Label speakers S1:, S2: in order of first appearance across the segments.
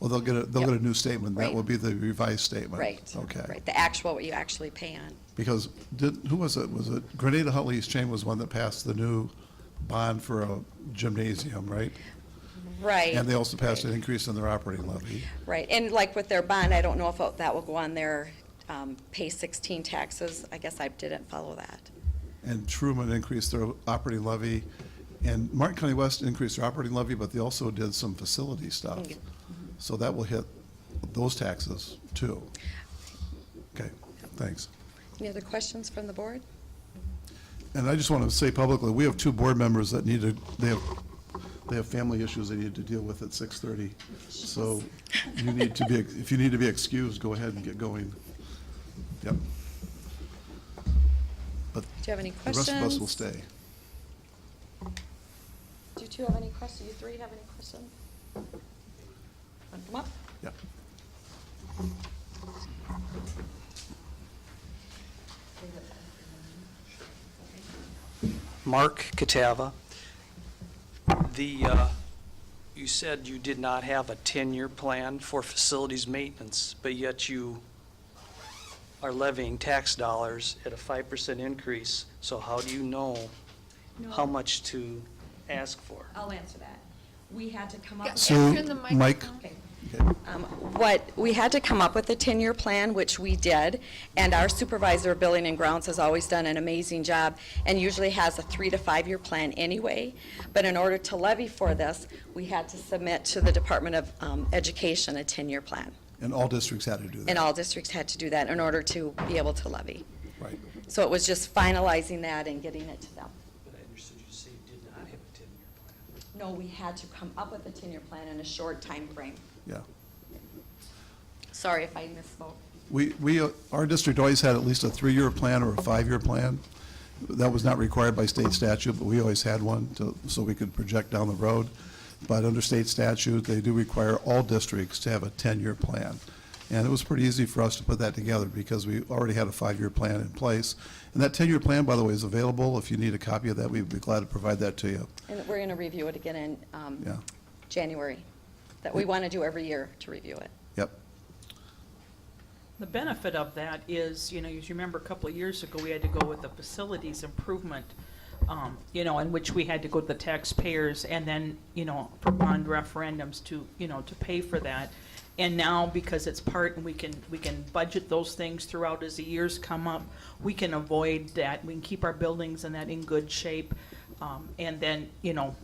S1: Well, they'll get a, they'll
S2: Yep.
S1: get a new statement. That
S2: Right.
S1: will be the revised statement.
S2: Right.
S1: Okay.
S2: Right, the actual, what you actually pay on.
S1: Because did, who was it? Was it Grenada Huntley East Chamber was the one that passed the new bond for a gymnasium, right?
S2: Right.
S1: And they also passed
S2: right.
S1: an increase in their operating levy.
S2: Right, and like with their bond, I don't know if that will go on their um, pay 16 taxes. I guess I didn't follow that.
S1: And Truman increased their operating levy. And Martin County West increased their operating levy, but they also did some facility stuff.
S2: Okay.
S1: So that will hit those taxes too. Okay, thanks.
S2: Any other questions from the board?
S1: And I just want to say publicly, we have two board members that need to, they have, they have family issues they need to deal with at 6:30. So you need to be, if you need to be excused, go ahead and get going. Yep. But
S2: Do you have any
S1: the
S2: questions?
S1: rest of us will stay.
S2: Do you two have any questions? You three have any questions? Want to come up?
S1: Yep.
S3: Mark Catava. The, uh, you said you did not have a 10-year plan for facilities maintenance, but yet you are levying tax dollars at a 5% increase, so how do you know how much to ask for?
S4: I'll answer that. We had to come up
S2: Uh,
S4: with.
S1: So,
S5: Turn the
S1: Mike,
S5: microphone.
S4: Okay.
S1: okay,
S2: What, we had to come up with a 10-year plan, which we did, and our supervisor of building and grounds has always done an amazing job and usually has a three to five-year plan anyway. But in order to levy for this, we had to submit to the Department of um, Education a 10-year plan.
S1: and all districts had to do that.
S2: And all districts had to do that in order to be able to levy.
S1: Right.
S2: So it was just finalizing that and getting it to them.
S3: But I understood you to say you did not have a 10-year
S2: No,
S3: plan.
S2: we had to come up with a 10-year plan in a short time frame.
S1: Yeah.
S2: Sorry if I misspoke.
S1: We, we, uh, our district always had at least a three-year plan or a five-year plan. That was not required by state statute, but we always had one to, so we could project down the road. But under state statute, they do require all districts to have a ten-year plan. And it was pretty easy for us to put that together because we already had a five-year plan in place. And that ten-year plan, by the way, is available. If you need a copy of that, we'd be glad to provide that to you.
S2: And we're going to review it again in um,
S1: Yeah.
S2: January, that we want to do every year to review it.
S1: Yep.
S6: The benefit of that is, you know, as you remember, a couple of years ago, we had to go with the facilities improvement, um, you know, in which we had to go to the taxpayers and then, you know, for bond referendums to, you know, to pay for that. And now, because it's part, and we can, we can budget those things throughout as the years come up, we can avoid that, we can keep our buildings and that in good shape. Um, and then, you know,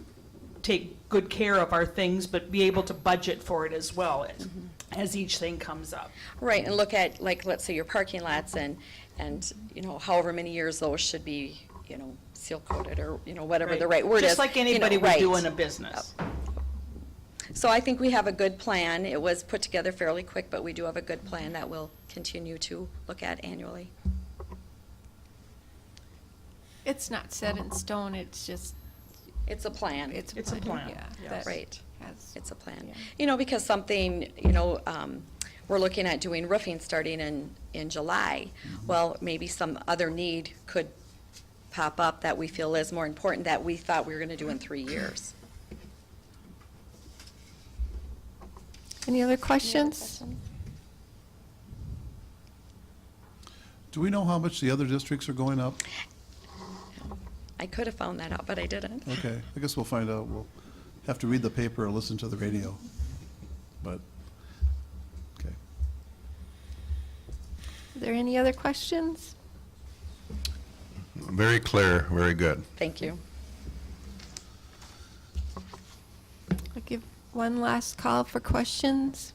S6: take good care of our things, but be able to budget for it as well as, as each thing comes up.
S2: Right, and look at, like, let's say your parking lots and, and, you know, however many years those should be, you know, seal coated or, you know, whatever the right word is.
S6: Just like
S2: you know,
S6: anybody would do
S2: right. Oh.
S6: in a business.
S2: So I think we have a good plan. It was put together fairly quick, but we do have a good plan that we'll continue to look at annually.
S5: It's not set in stone, it's just,
S2: It's a plan.
S5: it's
S6: It's a
S5: a
S6: plan,
S5: plan, yeah.
S6: yes.
S5: that
S2: Right.
S5: has-
S2: It's a plan.
S5: Yeah.
S2: You know, because something, you know, um, we're looking at doing roofing starting in, in July. Well, maybe some other need could pop up that we feel is more important that we thought we were gonna do in three years.
S5: Any other questions?
S1: Do we know how much the other districts are going up?
S2: I could have found that out, but I didn't.
S1: Okay, I guess we'll find out. We'll have to read the paper or listen to the radio. But, okay.
S5: Are there any other questions?
S7: Very clear, very good.
S2: Thank you.
S5: I'll give one last call for questions.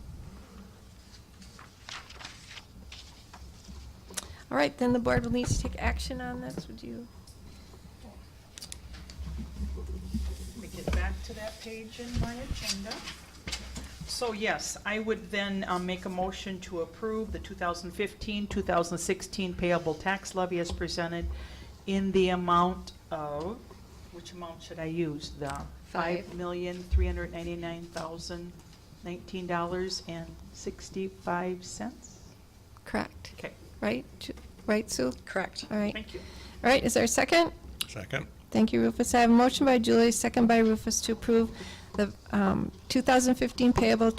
S5: All right, then the board will need to take action on this, would you?
S6: Let me get back to that page in my agenda. So yes, I would then um, make a motion to approve the 2015, 2016 payable tax levy as presented in the amount of, which amount should I use? The
S2: Five.
S6: $5,399,019.65?
S5: Correct,
S6: Okay,
S5: right? Ju- Right, Sue?
S2: Correct.
S5: All right,
S6: thank you.
S5: all right, is there a second?
S7: Second.
S5: Thank you, Rufus. I have a motion by Julie, second by Rufus to approve the um, 2015 payable